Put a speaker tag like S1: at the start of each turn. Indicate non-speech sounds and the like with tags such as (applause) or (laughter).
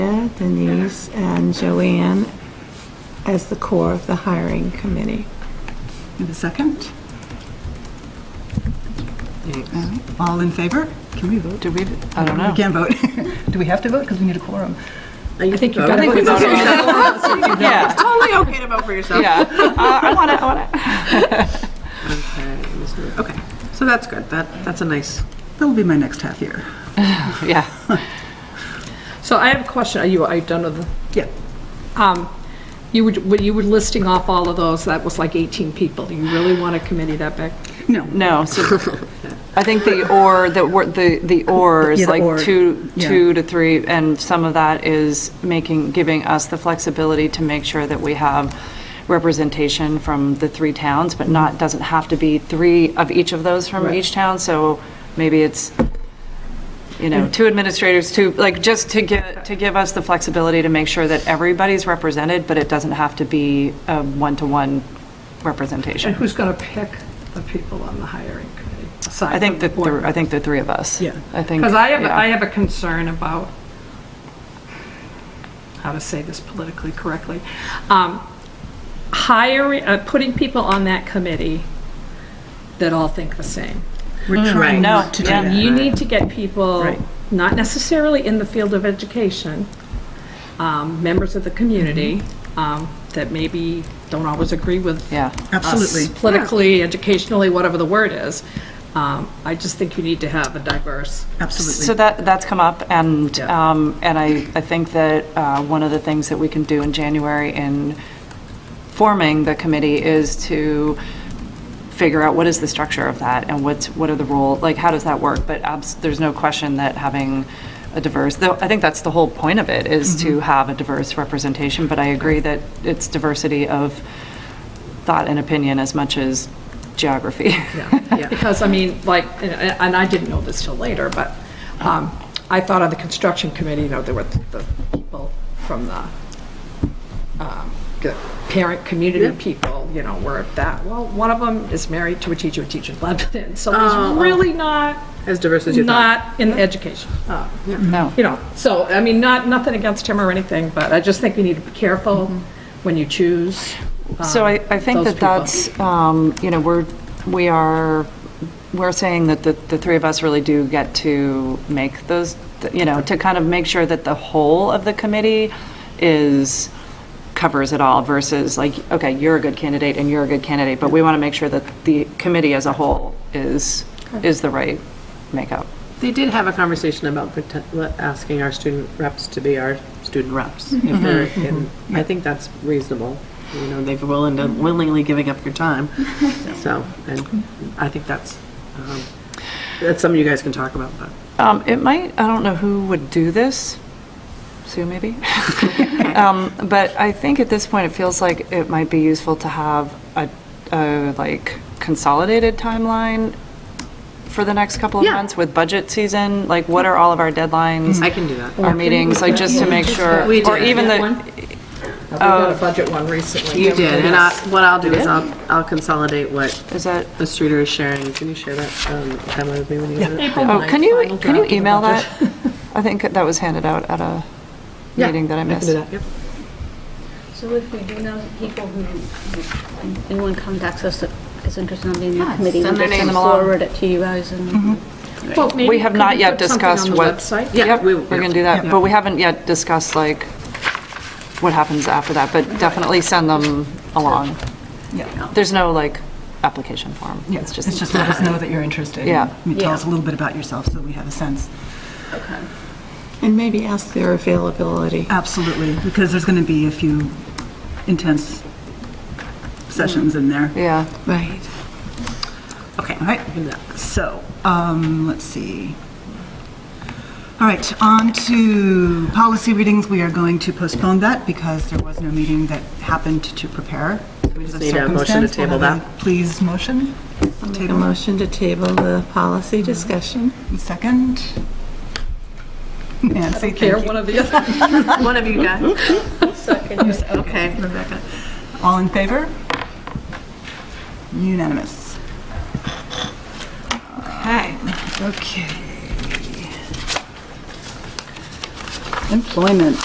S1: Linda, Denise, and Joanne as the core of the hiring committee.
S2: Have a second? All in favor? Can we vote? Do we?
S3: I don't know.
S2: We can vote. Oh. (laughs) Do we have to vote? Because we need a quorum.
S3: I think you've got to vote on it. Yeah,
S2: Totally okay to vote for yourself.
S3: yeah. Uh, I want it, I want it.
S2: Okay,
S4: So that's good. That, that's a nice.
S2: that'll be my next half year.
S3: Yeah.
S5: So I have a question. Are you, are you done with the?
S2: Yeah.
S5: Um, You would, when you were listing off all of those, that was like 18 people. Do you really want a committee that big?
S2: No,
S3: No, so
S2: (laughs)
S3: I think the or, the, wor- the the or
S2: Yeah,
S3: is
S2: the
S3: like
S2: or,
S3: two,
S2: yeah.
S3: two to three, and some of that is making, giving us the flexibility to make sure that we have representation from the three towns, but not, doesn't have to be three of each of those from each town, so maybe it's, you know, two administrators, two, like, just to get, to give us the flexibility to make sure that everybody's represented, but it doesn't have to be a one-to-one
S5: And
S3: representation.
S5: who's going to pick the people on the hiring committee?
S3: I think that, the- I think the three of us.
S2: Yeah.
S3: I think.
S5: Because I have,
S3: yeah.
S5: I have a concern about, how to say this politically correctly, Um, hiring, uh, putting people on that committee that all think the same.
S2: we're trying
S3: No,
S2: not to do
S3: yeah.
S2: that.
S5: You need to get people,
S2: Right.
S5: not necessarily in the field of education, um, members of the community um, that maybe don't always agree with
S3: Yeah.
S2: Absolutely.
S5: us politically, educationally, whatever the word is. Um, I just think you need to have a diverse.
S3: So
S2: Absolutely.
S3: that, that's come up, and,
S5: Yeah.
S3: um, and I, I think that uh, one of the things that we can do in January in forming the committee is to figure out what is the structure of that, and what's, what are the role, like, how does that work? But abs, there's no question that having a diverse, though, I think that's the whole point of it, is to have a diverse representation, but I agree that it's diversity of thought and opinion as much as geography. (laughs)
S5: Because, I mean, like, and- and I didn't know this till later, but um, I thought on the construction committee, you know, there were the people from the um, the parent community people, you know, were at that. Well, one of them is married to a teacher, a teacher in Lebanon, so he's really not,
S4: Oh, As diverse as you thought. Oh,
S5: not in education. Uh,
S3: No.
S5: You know, so, I mean, not, nothing against him or anything, but I just think we need to be careful when you choose.
S3: Mm-hmm.
S5: Um,
S3: So I, I think
S5: those
S3: that
S5: people.
S3: that's, um, you know, we're, we are, we're saying that the, the three of us really do get to make those, you know, to kind of make sure that the whole of the committee is, covers it all versus like, okay, you're a good candidate and you're a good candidate, but we want to make sure that the committee as a whole is, is the right makeup.
S4: They did have a conversation about pretend- le- asking our student reps to be our student reps. if
S2: Mm-hmm.
S4: they're in- I think that's reasonable. You know, they've willing to,
S2: Mm-hmm.
S4: willingly giving up your
S2: (laughs)
S4: time. So, and I think that's, um, that's something you guys can talk about, but.
S3: Um, it might, I don't know who would do this,
S4: (laughs)
S3: Sue maybe? Um, but I think at this point, it feels like it might be useful to have a, a like consolidated timeline for the next couple of
S4: Yeah.
S3: months with budget season, like what are all of our deadlines,
S4: I can do that.
S3: our meetings, like just to make sure,
S4: We
S3: or
S4: did.
S3: even
S5: That
S3: the,
S5: one? We've
S3: Oh.
S5: got a budget one recently.
S4: You did, and I, what I'll do is
S3: did?
S4: I'll, I'll consolidate what
S3: is that,
S4: the Streeter is sharing. Can you share that, um, timeline with me when you do it?
S5: April
S3: oh,
S5: ninth,
S3: can you,
S5: final
S3: can you
S5: draft of the
S3: email
S5: budget.
S3: that? (laughs) I think that was handed out at a
S4: Yeah,
S3: meeting that I
S4: I can
S3: missed.
S4: do that, yep.
S6: So if we do know people who, anyone contacts us that is interested in being in the committee, we'll
S3: send their
S6: just
S3: name along. Mm-hmm.
S6: forward it to you guys and
S5: Well, maybe
S3: We have
S5: could
S3: not yet
S5: put something
S3: discussed what.
S5: on the website?
S4: Yeah,
S3: Yep,
S4: we-
S3: we're going to do that, but we haven't yet discussed like what happens after that, but definitely send them along.
S2: Yeah.
S3: There's no like application form.
S2: Yeah,
S3: It's
S2: It's just let us know that you're interested.
S3: Yeah.
S2: And Tell us a little bit about yourself so we have a sense.
S1: And maybe ask their availability.
S2: Absolutely, because there's going to be a few intense sessions in there.
S3: Yeah.
S1: Right.
S2: Okay, all right. So, um, let's see. All right, on to policy readings. We are going to postpone that because there was no meeting that happened to prepare. We
S4: just need a motion to table that.
S2: Please, motion,
S1: I'll make a motion to table the policy discussion.
S2: second. Nancy, thank
S5: Here,
S2: you.
S5: one of the
S2: (laughs)
S5: other.
S4: One of you guys. Okay.
S2: Rebecca. All in favor? Unanimous. Okay. Okay. Employment.